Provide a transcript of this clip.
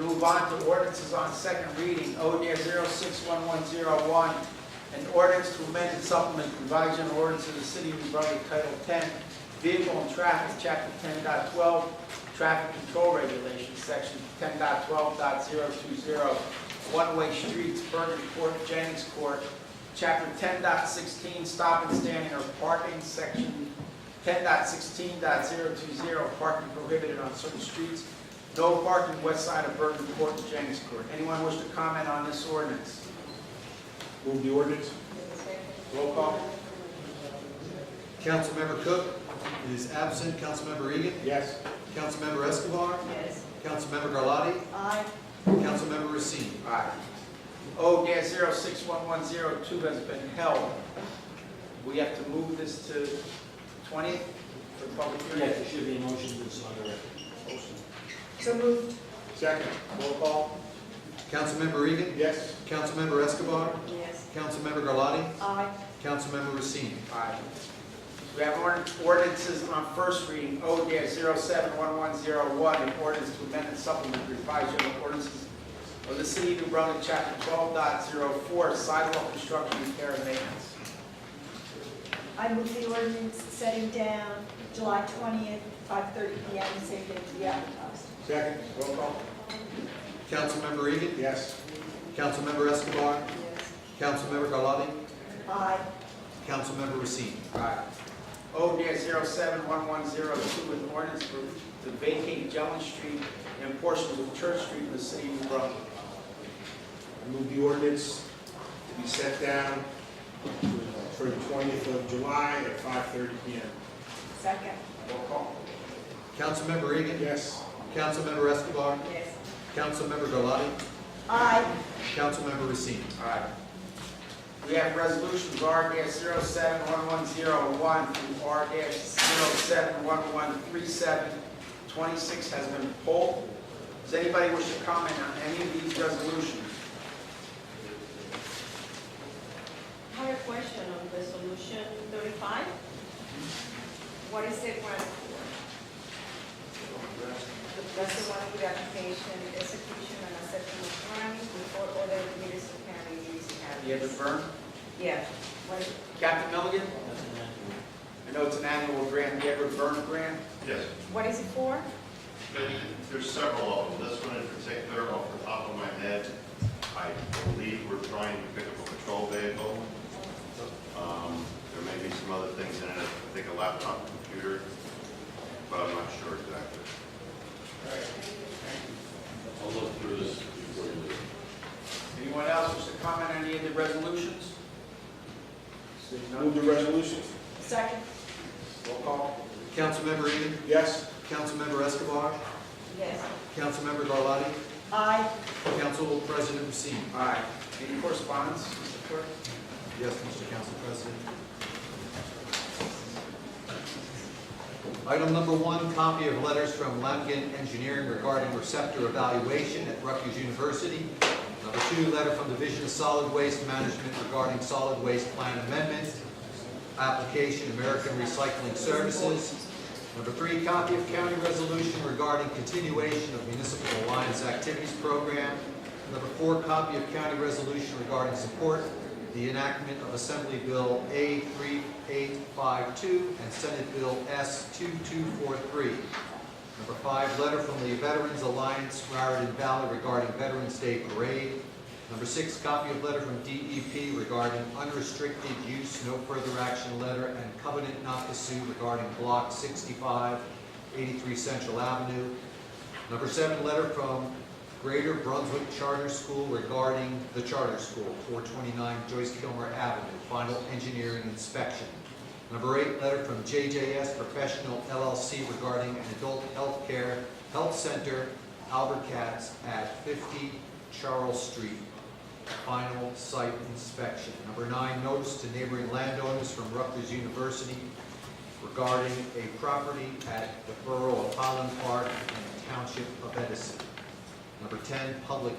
move on to ordinances on second reading. O near 061101, an ordinance to amend and supplement the revised general ordinance of the city of New Brunswick Title 10, Vehicle and Traffic, Chapter 10.12, Traffic Control Regulations, Section 10.12.020, One-Way Streets, Bergen Court, Jennings Court, Chapter 10.16, Stop and Standing or Parking, Section 10.16.020, Parking Prohibited on Certain Streets, no parking west side of Bergen Court and Jennings Court. Anyone wish to comment on this ordinance? Move the ordinance. Roll call. Councilmember Cook is absent. Councilmember Egan. Yes. Councilmember Escobar. Yes. Councilmember Garlotti. Aye. Councilmember Racine. Aye. O dash zero six one one zero two has been held. We have to move this to twentieth for public Yeah, hearing. there should be a motion to this on the record. So moved. Second. Roll call. Councilmember Egan. Yes. Councilmember Escobar. Yes. Councilmember Garlotti. Aye. Councilmember Racine. Aye. We have ord- ordinances on first reading. O dash zero seven one one zero one, an ordinance to amend and supplement the revised general ordinances of the city of New Brunswick, chapter twelve dot zero four, sidewalk construction, repair, and maintenance. I move the ordinance setting down July twentieth, five thirty P M, same day to be advertised. Second. Roll call. Councilmember Egan. Yes. Councilmember Escobar. Yes. Councilmember Garlotti. Aye. Councilmember Racine. Aye. O dash zero seven one one zero two, an ordinance for, to vacate Jellin Street and portions of Church Street in the city of New Brunswick. Move the ordinance to be set down for the twentieth of July at five thirty P M. Second. Roll call. Councilmember Egan. Yes. Councilmember Escobar. Yes. Councilmember Garlotti. Aye. Councilmember Racine. Aye. We have resolutions R dash zero seven one one zero one through R dash zero seven one one three seven. Twenty-six has been pulled. Does anybody wish to comment on any of these resolutions? I have a question on resolution thirty-five. What is the grant for? That's the one with application, execution, and acceptance of grant before other municipal counties. You have it, Vern? Yeah. What- Captain Milligan? That's an act. I know it's an annual grant, you have a Vern grant? Yes, What is it for? there- there's several of them. This one in particular, off the top of my head, I believe we're trying to pick up a patrol vehicle. Um, There may be some other things in it, I think a laptop computer, but I'm not sure exactly. I'll look through this before you leave. Anyone else wish to comment on any of the resolutions? Seeing Move none, the resolutions. Second. roll call. Councilmember Egan. Yes. Councilmember Escobar. Yes. Councilmember Garlotti. Aye. Council President Racine. Aye. Any correspondence, Mr. Clerk? Yes, Mr. Council President. Item number one, copy of letters from Lamkin Engineering regarding receptor evaluation at Rutgers University. Number two, letter from Division of Solid Waste Management regarding solid waste plan amendment, application American Recycling Services. Number three, copy of county resolution regarding continuation of municipal alliance activities program. Number four, copy of county resolution regarding support the enactment of Assembly Bill A3852 and Senate Bill S2243. Number five, letter from the Veterans Alliance, Raritan Valley regarding Veterans Day Parade. Number six, copy of letter from DEP regarding unrestricted use, no further action letter, and covenant not to sue regarding Block 65, 83 Central Avenue. Number seven, letter from Greater Brunswick Charter School regarding the charter school, 429 Joyce Kilmer Avenue, final engineering inspection. Number eight, letter from JJS Professional LLC regarding an adult health care health center, Albert Katz at 50 Charles Street, final site inspection. Number nine, notice to neighboring landowners from Rutgers University regarding a property at the Borough of Highland Park in the Township of Edison. Number 10, public